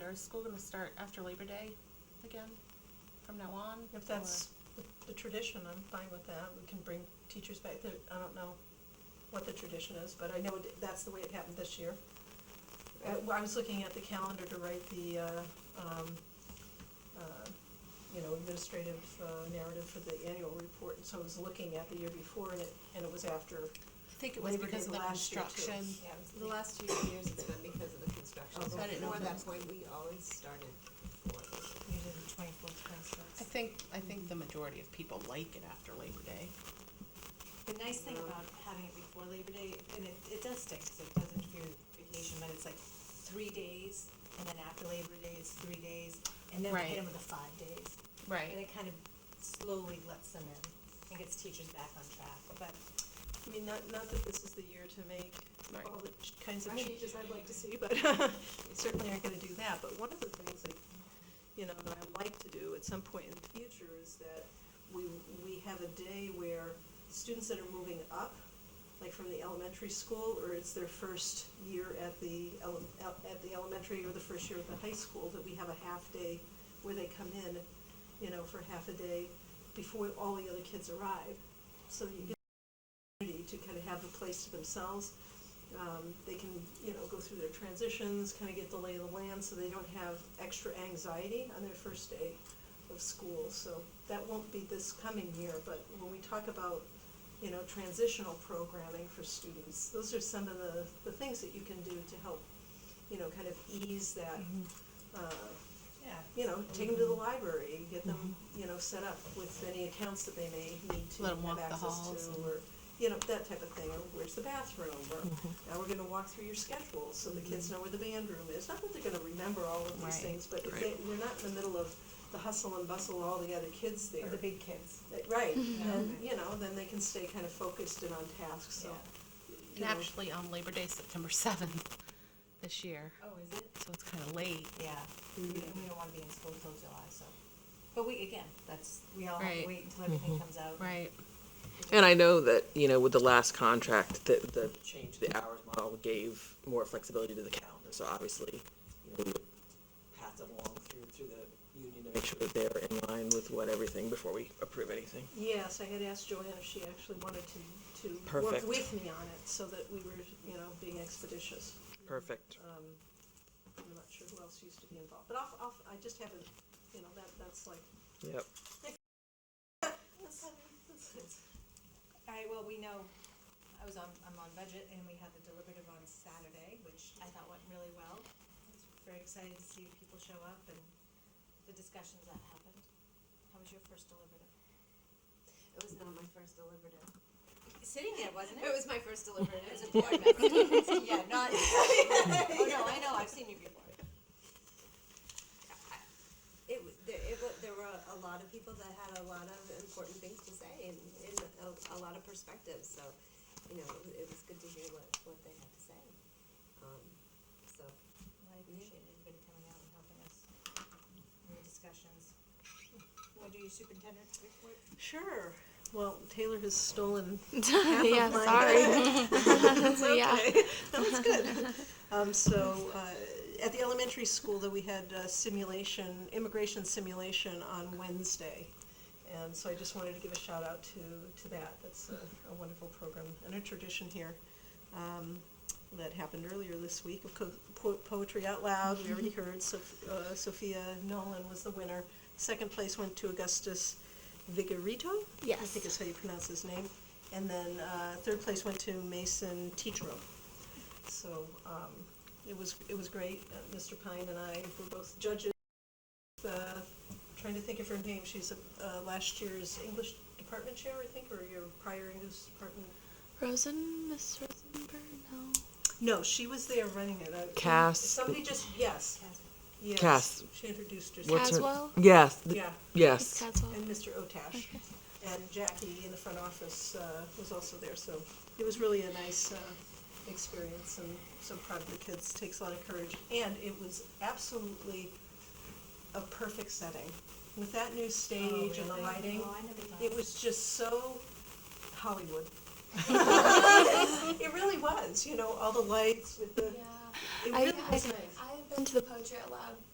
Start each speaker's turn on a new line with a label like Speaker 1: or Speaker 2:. Speaker 1: year, is school gonna start after Labor Day again, from now on?
Speaker 2: If that's the, the tradition, I'm fine with that, we can bring teachers back, There- I don't know what the tradition is, but I know it- that's the way it happened this year. I, I was looking at the calendar to write the, uh, um, uh, you know, administrative uh, narrative for the annual report, and so I was looking at the year before, and it, and it was after,
Speaker 1: I think it was
Speaker 2: Labor Day
Speaker 1: because of the
Speaker 2: last year, too.
Speaker 1: construction.
Speaker 3: Yeah, it was the last two years it's been because of the construction.
Speaker 2: Okay.
Speaker 3: So
Speaker 2: I didn't
Speaker 1: know
Speaker 3: Before
Speaker 1: that.
Speaker 3: that point, we always started before.
Speaker 4: You did the twenty-fourth,
Speaker 1: I
Speaker 4: twenty-sixth.
Speaker 1: think, I think the majority of people like it after Labor Day.
Speaker 4: The nice thing about having it before Labor Day, and it, it does stick, 'cause it does interfere with vacation, but it's like three days, and then after Labor Day, it's three days, and then we
Speaker 1: Right.
Speaker 4: hit them with the five days. And it kind of slowly lets them in and gets teachers back on track, but
Speaker 2: I mean, not, not that this is the year to make
Speaker 1: Right.
Speaker 2: all the ch- kinds of
Speaker 3: I mean-
Speaker 2: changes I'd like to see, but we certainly aren't gonna do that, but one of the things that, you know, that I would like to do at some point in the future is that we, we have a day where students that are moving up, like from the elementary school, or it's their first year at the, ele- el- at the elementary or the first year at the high school, that we have a half day where they come in, you know, for half a day before all the other kids arrive. So you get opportunity to kind of have a place to themselves. Um, they can, you know, go through their transitions, kind of get the lay of the land, so they don't have extra anxiety on their first day of school. So that won't be this coming year, but when we talk about, you know, transitional programming for students, those are some of the, the things that you can do to help, you know, kind of ease that, uh,
Speaker 4: yeah.
Speaker 2: you know, take them to the
Speaker 1: Mm-hmm.
Speaker 2: library, get them, you know, set up with any accounts that they may need to
Speaker 1: Let 'em walk
Speaker 2: have
Speaker 1: the halls
Speaker 2: access to,
Speaker 1: and-
Speaker 2: or, you know, that type of thing, or where's the bathroom, or
Speaker 1: Mm-hmm.
Speaker 2: now we're gonna walk through your schedule, so the kids know where the band room is, not that they're gonna remember all of
Speaker 1: Right,
Speaker 2: these things, but if
Speaker 1: right.
Speaker 2: they, we're not in the middle of the hustle and bustle of all the other kids there.
Speaker 4: The big kids.
Speaker 2: That- Right, and,
Speaker 4: Mhm.
Speaker 2: you know, then they can stay kind of focused and on task, so, you
Speaker 1: And
Speaker 2: know,
Speaker 1: actually, on Labor Day, September seventh this year,
Speaker 4: Oh, is it?
Speaker 1: so it's kinda late.
Speaker 4: Yeah, we don't, we don't wanna be in school till July, so, but we, again, that's, we all have
Speaker 1: Right. Mm-hmm.
Speaker 4: to wait until everything comes out.
Speaker 1: Right.
Speaker 5: And I know that, you know, with the last contract, the, the change to the hours model gave more flexibility to the calendar, so obviously, you know, we would pass it along through, through the union to make sure that they're in line with what everything before we approve anything.
Speaker 2: Yes, I had asked Joanne if she actually wanted to, to work
Speaker 5: Perfect.
Speaker 2: with me on it, so that we were, you know, being expeditious.
Speaker 5: Perfect.
Speaker 2: um, I'm not sure who else used to be involved, but I'll, I'll, I just haven't, you know, that, that's like,
Speaker 5: Yep.
Speaker 2: that's, that's, that's,
Speaker 4: Alright, well, we know, I was on, I'm on budget, and we had the deliberative on Saturday, which I thought went really well. I was Very excited to see people show up and the discussions that happened. How was your first deliberative?
Speaker 3: It was not my first deliberative.
Speaker 4: Sitting there, wasn't
Speaker 3: It
Speaker 4: it?
Speaker 3: was my first deliberative as a board member.
Speaker 4: Yeah, not, oh, no, I know, I've seen you before.
Speaker 3: It, w- there, it, wa- there were a lot of people that had a lot of important things to say and, and a, a lot of perspectives, so, you know, it was- it was good to hear what, what they had to say. Um, so,
Speaker 4: I appreciate everybody coming out and helping us in the discussions. Want to do your superintendent report?
Speaker 2: sure. Well, Taylor has stolen
Speaker 6: yeah, sorry. yeah.
Speaker 2: That's good. Um, so, uh, at the elementary school, though, we had uh, simulation, immigration simulation on Wednesday. And so I just wanted to give a shout out to, to that. That's a, a wonderful program and a tradition here. Um, that happened earlier this week of co- po- Poetry Out Loud, we already heard, Sof- uh, Sophia Nolan was the winner. Second place went to Augustus Vigorito? I
Speaker 6: Yes.
Speaker 2: think is how you pronounce his name. And then uh, third place went to Mason Tetro. So um, it was, it was great. Uh, Mr. Pine and I were both judges. Uh, Trying to think of her name, she's a- uh, last year's English department chair, I think, or your prior English department.
Speaker 6: Rosen, Miss Rosenberg, no.
Speaker 2: No, she was there running it. I-
Speaker 5: Cass.
Speaker 2: Somebody just, yes, yes.
Speaker 5: Cass.
Speaker 2: She introduced herself.
Speaker 5: What's her-
Speaker 6: Caswell?
Speaker 5: Yes, th-
Speaker 2: Yeah.
Speaker 5: yes.
Speaker 6: Miss Caswell.
Speaker 2: and Mr. Otash. And Jackie in the front office uh, was also there, so it was really a nice uh, experience and so proud of the kids, takes a lot of courage. And it was absolutely a perfect setting. With that new stage and the
Speaker 4: really?
Speaker 2: lighting,
Speaker 4: Oh, I never thought.
Speaker 2: it was just so Hollywood. It really was, you know, all the lights with the,
Speaker 6: Yeah.
Speaker 2: uh, it
Speaker 6: I,
Speaker 2: really
Speaker 6: I,
Speaker 2: was nice.
Speaker 6: I've been to the Poetry Out Loud